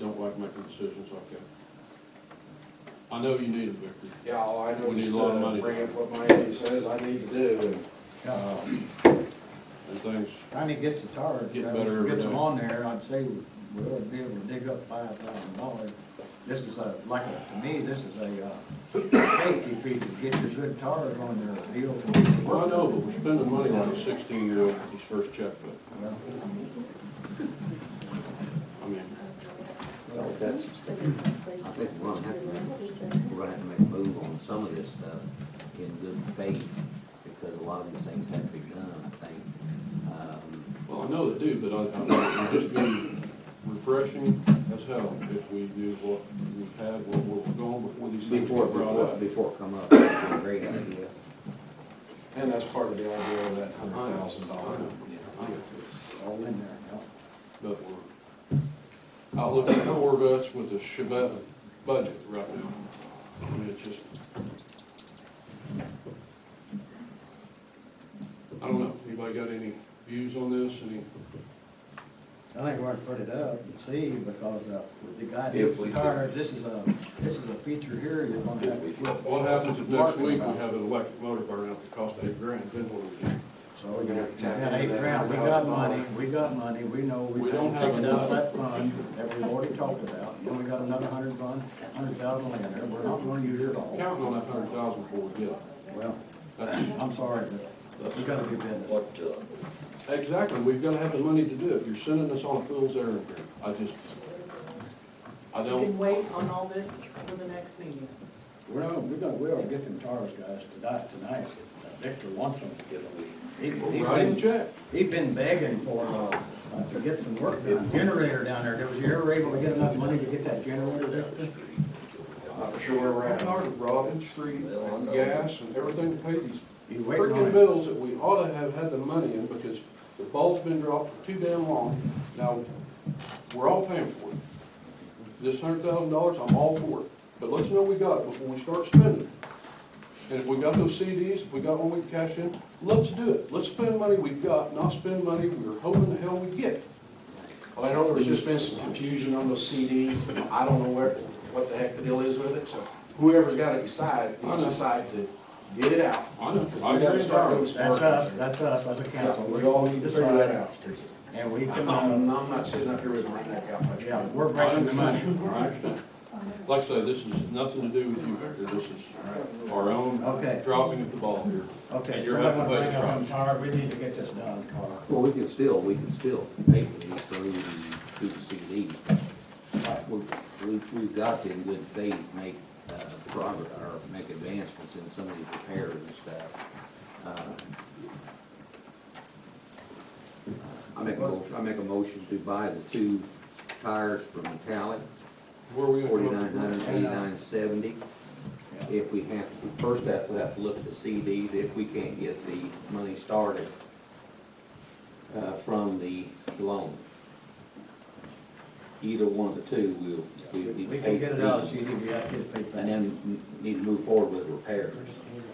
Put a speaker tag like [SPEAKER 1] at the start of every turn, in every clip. [SPEAKER 1] don't like making decisions like that. I know you need them, Victor.
[SPEAKER 2] Yeah, all I know
[SPEAKER 1] We need
[SPEAKER 2] is
[SPEAKER 1] a lot of money.
[SPEAKER 2] to bring up what my Andy says I need to do, and, uh,
[SPEAKER 1] And things,
[SPEAKER 3] Trying to get the tar,
[SPEAKER 1] Get better
[SPEAKER 3] Travis,
[SPEAKER 1] every
[SPEAKER 3] gets them
[SPEAKER 1] day.
[SPEAKER 3] on there, I'd say we we ought to be able to dig up five thousand dollars. This is a, like, a- to me, this is a, uh, safety feature, get your good tars on their wheels. and get to
[SPEAKER 1] well, I
[SPEAKER 3] work.
[SPEAKER 1] know, but we're spending money like a sixteen-year-old with his first checkbook. I
[SPEAKER 3] Well,
[SPEAKER 1] mean,
[SPEAKER 4] Well, that's, I think we're gonna have to make, we're gonna have to make a move on some of this stuff in good faith, because a lot of these things have to be done, I think. Um,
[SPEAKER 1] well, I know they do, but I, I, it'd just be refreshing as hell if we knew what we had, what we're going before these things
[SPEAKER 4] Before,
[SPEAKER 1] get brought
[SPEAKER 4] before,
[SPEAKER 1] up.
[SPEAKER 4] before it come up, that'd be a great idea.
[SPEAKER 2] and that's part of the idea of that hundred thousand dollar.
[SPEAKER 1] I know.
[SPEAKER 3] it's All in there, yeah.
[SPEAKER 1] But we're, I look at Corvettes with a Chevette budget right now. I mean, it's just. I don't know, anybody got any views on this, any,
[SPEAKER 3] I think we're gonna put it up and see, because, uh, the guy that gets the tires, this is a, this is a feature here, you're gonna have to get.
[SPEAKER 1] what happens if next
[SPEAKER 3] Parking
[SPEAKER 1] week we
[SPEAKER 3] lot.
[SPEAKER 1] have an electric motor burn out that costs eight grand, then what do we do?
[SPEAKER 3] So we're
[SPEAKER 2] We're gonna
[SPEAKER 3] gonna,
[SPEAKER 2] have to tap
[SPEAKER 3] yeah, eight
[SPEAKER 2] into that
[SPEAKER 3] grand, we got
[SPEAKER 2] $100,000.
[SPEAKER 3] money, we got money, we know
[SPEAKER 1] We
[SPEAKER 3] we
[SPEAKER 1] don't
[SPEAKER 3] don't
[SPEAKER 1] have
[SPEAKER 3] have enough
[SPEAKER 1] enough.
[SPEAKER 3] that fund that we've already talked about, and we got another hundred fund, hundred thousand in there, we're not gonna use it all.
[SPEAKER 1] Counting on that hundred thousand before we get it.
[SPEAKER 3] Well,
[SPEAKER 1] That's,
[SPEAKER 3] I'm sorry, but we gotta do business.
[SPEAKER 5] What, uh,
[SPEAKER 1] Exactly, we've gotta have the money to do it, you're sending us on a fool's errand here, I just, I
[SPEAKER 6] You can
[SPEAKER 1] don't,
[SPEAKER 6] wait on all this for the next meeting.
[SPEAKER 3] We're not, we're gonna, we ought to get them tires, guys, to die tonight, Victor wants them to get them. He-
[SPEAKER 1] we're
[SPEAKER 3] he
[SPEAKER 1] writing a
[SPEAKER 3] been-
[SPEAKER 1] check.
[SPEAKER 3] He's been begging for, uh, uh, to get some work done, generator down there, was you ever able to get enough money to get that generator there?
[SPEAKER 2] Not sure where we're
[SPEAKER 1] Right,
[SPEAKER 2] at.
[SPEAKER 1] our Robin Street, and gas and everything to pay these
[SPEAKER 3] He's waiting on
[SPEAKER 1] freaking
[SPEAKER 3] it.
[SPEAKER 1] bills that we ought to have had the money in because the ball's been dropped for too damn long. Now, we're all paying for it. This hundred thousand dollars, I'm all for it, but let's know we got it before we start spending. it. And if we got those CDs, if we got one we can cash in, let's do it. Let's spend money we've got, not spend money we were hoping the hell we get.
[SPEAKER 2] Well, I know there was just been some confusion on those CDs, I don't know where, what the heck the deal is with it, so whoever's gotta decide,
[SPEAKER 1] I
[SPEAKER 2] needs
[SPEAKER 1] know.
[SPEAKER 2] to decide to get it out.
[SPEAKER 1] I know.
[SPEAKER 2] We gotta start doing some
[SPEAKER 3] That's
[SPEAKER 2] work.
[SPEAKER 3] us, that's us, as a council.
[SPEAKER 2] We all need to figure that out.
[SPEAKER 3] And we
[SPEAKER 2] I'm
[SPEAKER 3] can,
[SPEAKER 2] not, I'm
[SPEAKER 3] um,
[SPEAKER 2] not sitting up here with my neck out. my
[SPEAKER 3] yeah,
[SPEAKER 2] neck.
[SPEAKER 3] we're
[SPEAKER 1] I
[SPEAKER 3] breaking the money.
[SPEAKER 1] understand, I understand. Like I said, this is nothing to do with you, Victor, this is our own
[SPEAKER 3] Okay.
[SPEAKER 1] dropping of the ball here.
[SPEAKER 3] Okay,
[SPEAKER 1] And you're
[SPEAKER 3] so I'm
[SPEAKER 1] having
[SPEAKER 3] gonna bring
[SPEAKER 1] budget
[SPEAKER 3] up on
[SPEAKER 1] problems.
[SPEAKER 3] tar, we need to get this done, tar.
[SPEAKER 4] Well, we can still, we can still pay for these through, through the CDs. We- We've, we've got to in good faith make, uh, progress, or make advancements in some of these repairs and stuff. Uh, I make a motion, I make a motion to buy the two tires from Metallic,
[SPEAKER 1] Where are we gonna
[SPEAKER 4] forty-nine
[SPEAKER 1] come up
[SPEAKER 4] hundred
[SPEAKER 1] with?
[SPEAKER 4] eighty-nine seventy. If we have, to first have, we have to look at the CDs, if we can't get the money started, uh, from the loan. Either one of the two, we'll, we'll need
[SPEAKER 3] We can
[SPEAKER 4] to pay
[SPEAKER 3] get
[SPEAKER 4] for
[SPEAKER 3] it out, so
[SPEAKER 4] these,
[SPEAKER 3] you need to be out here to pay for
[SPEAKER 4] and
[SPEAKER 3] it.
[SPEAKER 4] then need to move forward with repairs.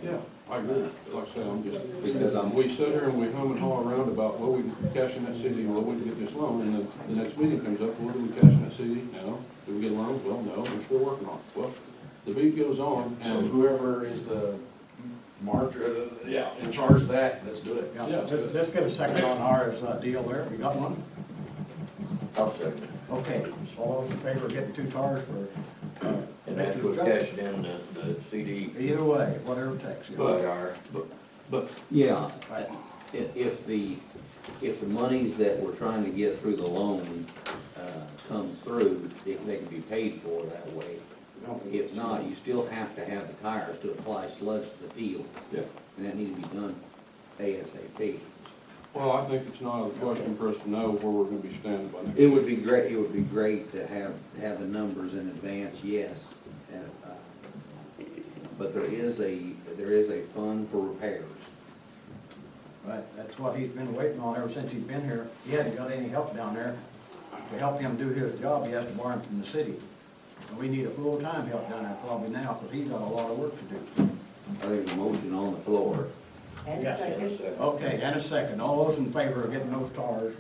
[SPEAKER 1] Yeah, I agree, like I said, I'm just,
[SPEAKER 4] Because I'm-
[SPEAKER 1] we sit here and we hum and haw around about, well, we can cash in that CD, well, we can get this loan, and then the next meeting comes up, well, do we cash in that CD? No, do we get a loan? Well, no, we're still working on it, well, the beat goes on,
[SPEAKER 2] So
[SPEAKER 1] and
[SPEAKER 2] whoever is the marker, yeah, in charge of that, let's do it.
[SPEAKER 3] Yeah, let's, let's get a second on ours, uh, deal there, you got one?
[SPEAKER 5] I'll second.
[SPEAKER 3] Okay, all those in favor of getting two tires for, uh,
[SPEAKER 5] And that's what cashed in the, the CD.
[SPEAKER 3] either way, whatever it takes. yeah.
[SPEAKER 1] But-
[SPEAKER 5] Our-
[SPEAKER 1] But
[SPEAKER 4] Yeah,
[SPEAKER 3] Right.
[SPEAKER 4] if, if the, if the monies that we're trying to get through the loan, uh, comes through, they, they can be paid for that way. If not, you still have to have the tires to apply sludge to the field.
[SPEAKER 1] Yeah.
[SPEAKER 4] And that needs to be done ASAP.
[SPEAKER 1] Well, I think it's not a question for us to know where we're gonna be standing by next.
[SPEAKER 4] It would be great, it would be great to have, have the numbers in advance, yes. And, uh, But there is a, there is a fund for repairs.
[SPEAKER 3] Right, that's what he's been waiting on ever since he's been here. He hasn't got any help down there. To help him do his job, he has to borrow him from the city. And we need a full-time help down there probably now, because he's got a lot of work to do.
[SPEAKER 4] I think a motion on the floor.
[SPEAKER 6] And
[SPEAKER 3] Yeah.
[SPEAKER 6] second,
[SPEAKER 3] Okay, and a second. All those in favor of getting those tires